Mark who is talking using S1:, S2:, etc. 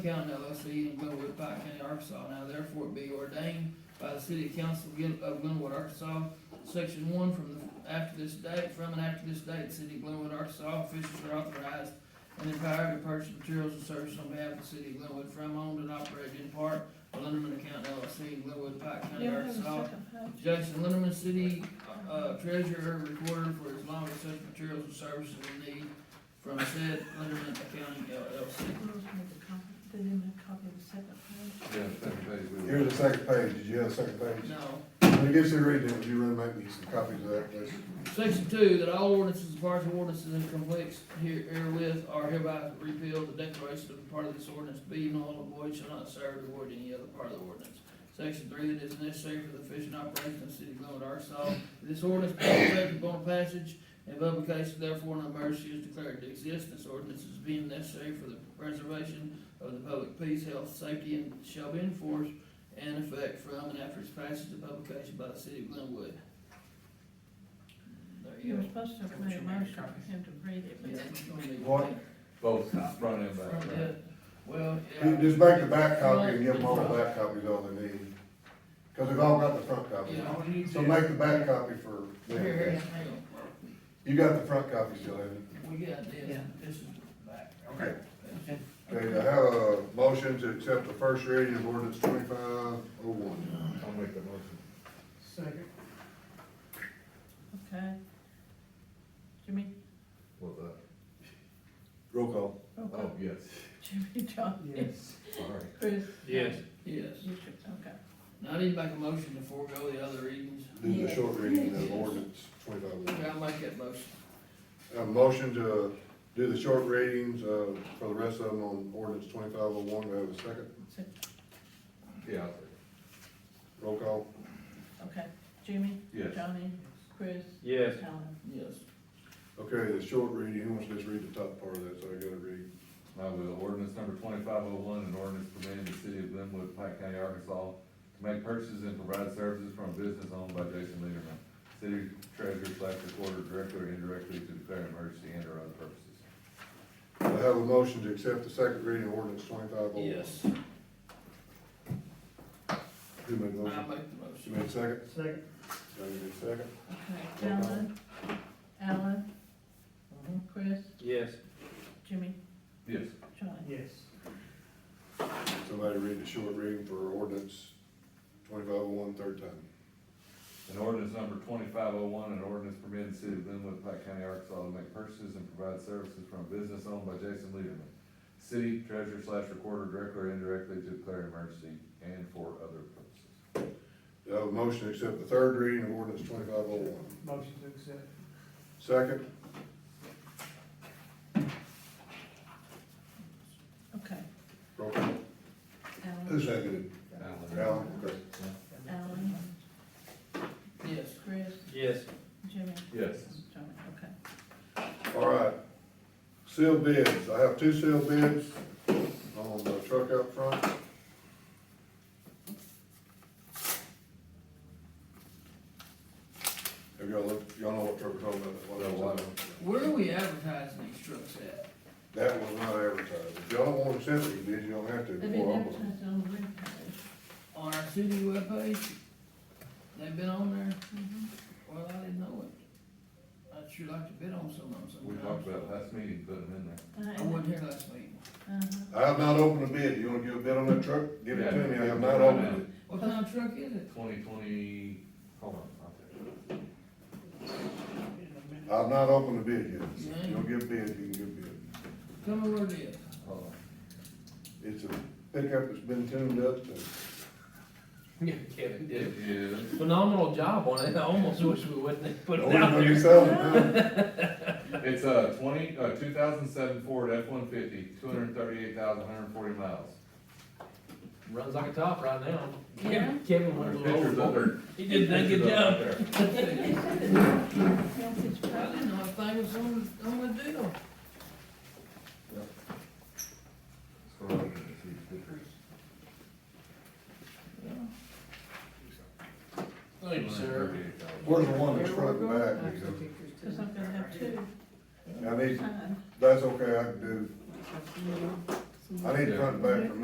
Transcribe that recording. S1: County LLC and Glenwood Pike County, Arkansas, now therefore be ordained by the City Council of Glen- of Glenwood, Arkansas, Section one, from the, after this date, from and after this date, the City of Glenwood, Arkansas, officials are authorized and empowered to purchase materials and services on behalf of the City of Glenwood from owned and operated in part by Linderman County LLC and Glenwood Pike County,
S2: Yeah, I have a
S1: Arkansas,
S2: second page.
S1: Jackson Linderman, City uh, Treasurer, Recorder for as long as such materials and services are needed from said Linderman County LLC.
S2: Rose made a copy, they didn't make a copy of the second page.
S3: Yeah, second page, we
S4: Here's
S3: will.
S4: the second page, did you have a second page?
S1: No.
S4: When it gets to reading it, would you really make me some copies of that, please?
S1: Section two, that all ordinances, and partial ordinances and conflicts here- herewith are hereby repealed, the declaration of a part of this ordinance be null and void shall not serve to void any other part of the ordinance. Section three, that is necessary for the fishing operation of the city of Glenwood, Arkansas, that this ordinance be effective upon passage and publication, therefore an emergency is declared to exist, this ordinance is being necessary for the preservation of the public peace, health, safety, and shall be enforced and effect from and after its passage and publication by the city of Glenwood. There you
S2: You
S1: go.
S2: were supposed to have made a motion for him to read it, but
S1: Yeah,
S2: then
S1: it's gonna be-
S4: What?
S3: Both front and back.
S1: From
S3: right?
S1: the- Well,
S4: You
S1: yeah,
S4: Just make the back copy and give them all the back copies all they need, because they've all got the front copy.
S1: yeah, what do you
S4: So
S1: do?
S4: make the back copy for
S1: Here, here,
S4: them.
S1: hang on.
S4: You got the front copy still, haven't
S1: We got this,
S5: Yeah.
S1: this is back.
S4: you? Okay. Okay, I have a motion to accept the first reading of ordinance twenty-five oh one.
S3: I'll make the motion.
S5: Second.
S2: Okay. Jimmy,
S3: What's that?
S4: Roll call.
S2: roll
S3: Oh,
S2: call.
S3: yes,
S2: Jimmy, John.
S5: Yes.
S3: sorry.
S2: Chris.
S6: Yes.
S1: Yes,
S2: Richard, okay.
S1: now I need to make a motion to forego the other readings.
S4: Do the short reading of
S1: Yes.
S4: ordinance twenty-five oh one.
S1: Okay, I'll make that motion.
S4: A motion to do the short readings, uh, for the rest of them on ordinance twenty-five oh one, do I have a second?
S2: So,
S3: Yeah, I'll
S4: Roll call.
S2: Okay, Jimmy,
S3: Yes.
S2: Johnny, Chris,
S6: Yes.
S2: Alan.
S1: Yes.
S4: Okay, the short reading, who wants to just read the top part of that, so I gotta read?
S3: I will. Ordinance number twenty-five oh one, an ordinance permitting the city of Glenwood, Pike County, Arkansas, to make purchases and provide services from a business owned by Jason Lederman, city treasurer slash recorder directly or indirectly to declare an emergency and or other purposes.
S4: I have a motion to accept the second reading of ordinance twenty-five oh one.
S1: Yes,
S4: Who made the
S1: I
S4: motion?
S1: make the
S4: She
S1: motion.
S4: made second?
S6: Second.
S4: Johnny made second.
S2: Okay,
S4: Roll call.
S2: Alan, Alan, Chris,
S6: Yes.
S2: Jimmy,
S3: Yes,
S2: Johnny.
S6: Yes.
S4: Somebody read the short reading for ordinance twenty-five oh one, third time.
S3: An ordinance number twenty-five oh one, an ordinance permitting the city of Glenwood, Pike County, Arkansas to make purchases and provide services from a business owned by Jason Lederman. City treasurer slash recorder directly or indirectly to declare emergency and for other purposes.
S4: Do I have a motion to accept the third reading of ordinance twenty-five oh one?
S5: Motion to accept.
S4: Second?
S2: Okay,
S4: Roll call. Who
S2: Alan,
S4: seconded?
S3: Alan.
S4: Alan, okay.
S2: Alan,
S1: Yes,
S2: Chris,
S6: Yes.
S2: Jimmy,
S3: Yes.
S2: Johnny, okay.
S4: All right. Sealed bids. I have two sealed bids on the truck out front. Have y'all looked, y'all know what truck we're talking about? what I'm talking about?
S1: where are we advertising these trucks at?
S4: That was not advertised. If y'all don't want to send these bids, you don't have to.
S2: They've been
S4: Well, I'm-
S2: advertised on the web page.
S1: On our city webpage? They've been on there?
S2: Mhm.
S1: Well, I didn't know it. I'd sure like to bid on some of them
S3: We talked
S1: sometimes.
S3: about last meeting, putting them in there.
S1: I wasn't here last meeting.
S2: Uh-huh.
S4: I have not opened a bid. You want to give a bid on that truck? Give it to me. I have not opened it.
S1: What kind of truck is it?
S3: Twenty twenty, hold on, I'll take it.
S4: I have not opened a bid yet. You want to give a bid, you can give a bid.
S1: Tell me where it is.
S3: Hold on.
S4: It's a pickup that's been tuned up and
S6: Kevin
S3: It
S6: did
S3: is,
S6: a phenomenal job on it. I almost wish we wouldn't have put it out
S4: Oh, you
S6: there.
S4: sell it now?
S3: it's a twenty, uh, two thousand seven Ford F-150, two hundred and thirty-eight thousand, one hundred and forty miles.
S6: Runs like a top right now.
S2: Yeah.
S6: Kevin went a little
S3: Pictures up
S6: overboard.
S3: there.
S6: He did a good
S3: Pictures up
S6: job.
S3: there.
S1: I
S2: Yeah, it's probably-
S1: didn't know a thing was on, on the deal.
S3: So, I can see the pictures.
S6: Thank you, sir.
S4: Where's the one that's front and back?
S2: Cause I'm gonna have two Uh-huh.
S4: I need,
S2: signed.
S4: that's okay, I can do, I need to front and back from